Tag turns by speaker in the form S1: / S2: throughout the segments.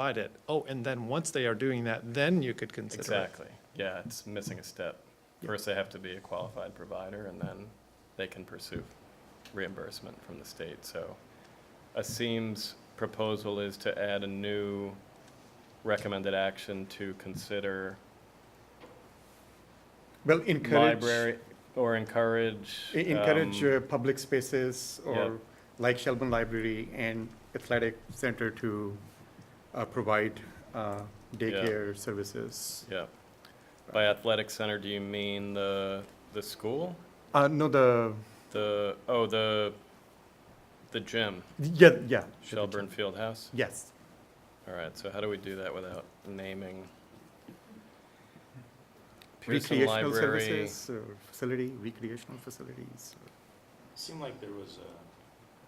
S1: provide it. Oh, and then once they are doing that, then you could consider it.
S2: Exactly, yeah, it's missing a step. First, they have to be a qualified provider, and then they can pursue reimbursement from the state, so. Asim's proposal is to add a new recommended action to consider
S3: Well, encourage,
S2: library, or encourage.
S3: e- encourage
S2: um,
S3: uh, public spaces
S2: yeah.
S3: or like Shelburne Library and Athletic Center to uh, provide uh, daycare services.
S2: Yeah. By athletic center, do you mean the, the school?
S3: Uh, no, the,
S2: The, oh, the, the gym,
S3: yeah, yeah.
S2: Shelburne Fieldhouse?
S3: Yes.
S2: All right, so how do we do that without naming? Pearson
S3: Recreational
S2: Library,
S3: services, or facility, recreational facilities.
S4: Seemed like there was, a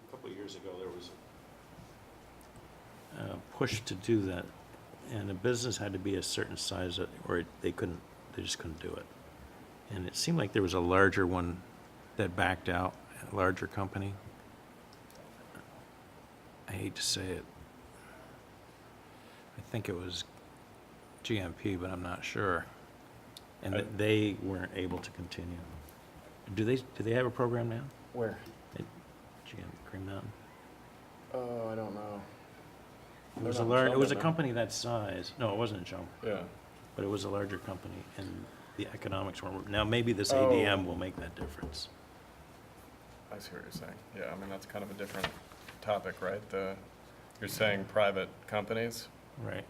S4: a couple of years ago, there was
S5: uh, push to do that, and a business had to be a certain size, uh, or it- they couldn't, they just couldn't do it. And it seemed like there was a larger one that backed out, a larger company. I hate to say it. I think it was GMP, but I'm not sure. And that they weren't able to continue. Do they, do they have a program now?
S2: where?
S5: at GM Green Mountain?
S2: Oh, I don't know.
S5: It
S2: They're
S5: was a
S2: not in
S5: large, it
S2: Shelburne
S5: was a
S2: now.
S5: company that size. No, it wasn't in Shelburne.
S2: Yeah.
S5: But it was a larger company, and the economics weren't, now maybe this
S2: Oh.
S5: ADM will make that difference.
S2: I see what you're saying. Yeah, I mean, that's kind of a different topic, right? The, you're saying private companies?
S5: Right.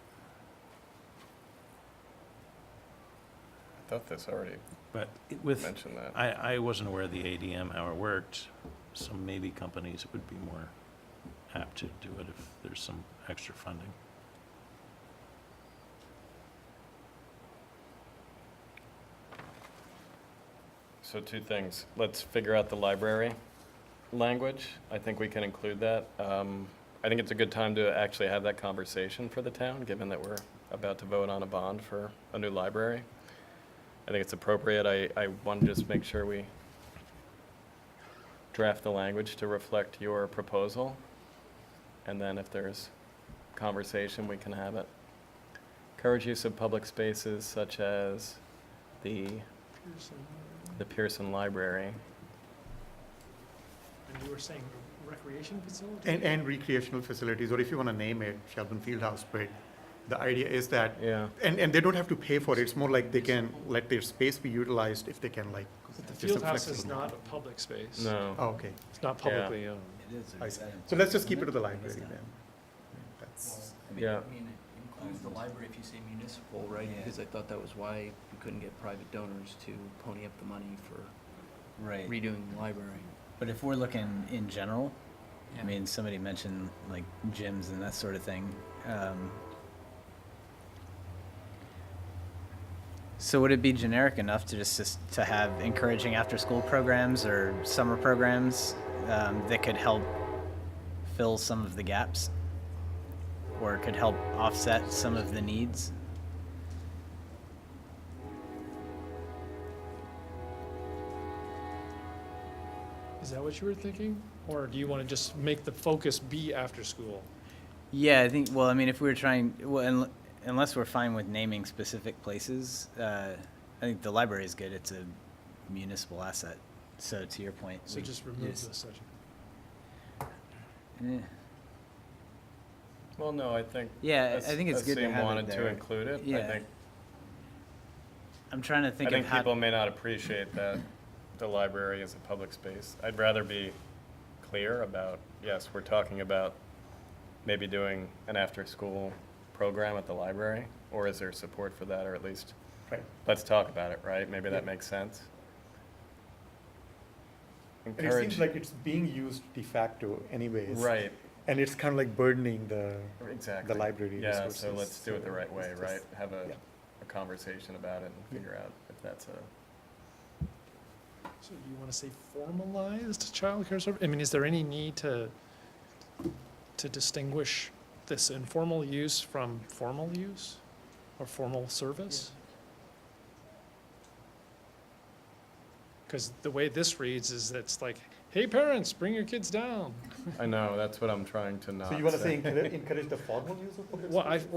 S2: I thought this already
S5: But it- with,
S2: mentioned that.
S5: I, I wasn't aware of the ADM, how it worked, so maybe companies would be more apt to do it if there's some extra funding.
S2: So two things. Let's figure out the library language. I think we can include that. Um, I think it's a good time to actually have that conversation for the town, given that we're about to vote on a bond for a new library. I think it's appropriate. I, I want to just make sure we draft the language to reflect your proposal. And then if there's conversation, we can have it. Encourage use of public spaces such as the the Pearson Library.
S6: And you were saying recreation facility?
S3: And, and recreational facilities, or if you want to name it, Shelburne Fieldhouse, but the idea is that
S2: Yeah.
S3: And, and they don't have to pay for it, it's more like they can let their space be utilized if they can like.
S6: But the
S3: just a
S6: field house is
S3: flexible-
S6: not a public space.
S2: No.
S3: Oh, okay,
S6: It's not publicly owned.
S3: I see. So let's just keep it to the library then. That's-
S7: I mean,
S2: Yeah.
S7: I mean, it includes the library if you say municipal, right?
S8: Yeah.
S7: Because I thought that was why we couldn't get private donors to pony up the money for
S8: Right,
S7: redoing the library.
S8: but if we're looking in general, I
S7: Yeah.
S8: mean, somebody mentioned like gyms and that sort of thing. um, So would it be generic enough to just, just to have encouraging after-school programs or summer programs um, that could help fill some of the gaps? Or could help offset some of the needs?
S6: Is that what you were thinking? Or do you want to just make the focus be after school?
S8: Yeah, I think. Well, I mean, if we were trying, well, unl- unless we're fine with naming specific places, uh, I think the library is good. It's a municipal asset. So to your point,
S6: So
S8: we
S2: Mm.
S6: just remove
S8: just-
S6: this section.
S8: eh,
S2: Well, no, I think.
S8: Yeah, I- I
S2: As-
S8: think it's good to
S2: Asim
S8: have it
S2: wanted to
S8: there.
S2: include it. I
S8: Yeah.
S2: think,
S8: I'm trying to
S2: I
S8: think
S2: think
S8: of how.
S2: people may not appreciate that the library is a public space. I'd rather be clear about, yes, we're talking about maybe doing an after-school program at the library, or is there support for that, or at least,
S3: Right.
S2: let's talk about it, right? Maybe that makes sense.
S3: And it seems
S2: Encourage,
S3: like it's being used de facto anyways.
S2: right,
S3: And it's kind of like burdening the,
S2: Exactly.
S3: library
S2: Yeah, so
S3: resources,
S2: let's do it the
S3: so
S2: right way,
S3: it's
S2: right?
S3: just-
S2: Have a,
S3: yeah.
S2: a conversation about it and figure out if that's a,
S6: So do you want to say formalized childcare service? I mean, is there any need to, to distinguish this informal use from formal use or formal service? Because the way this reads is it's like, hey, parents, bring your kids down.
S2: I know, that's what I'm trying to not
S3: So you want to say encourage encourage the formal use of public
S6: Well, I,
S3: spaces?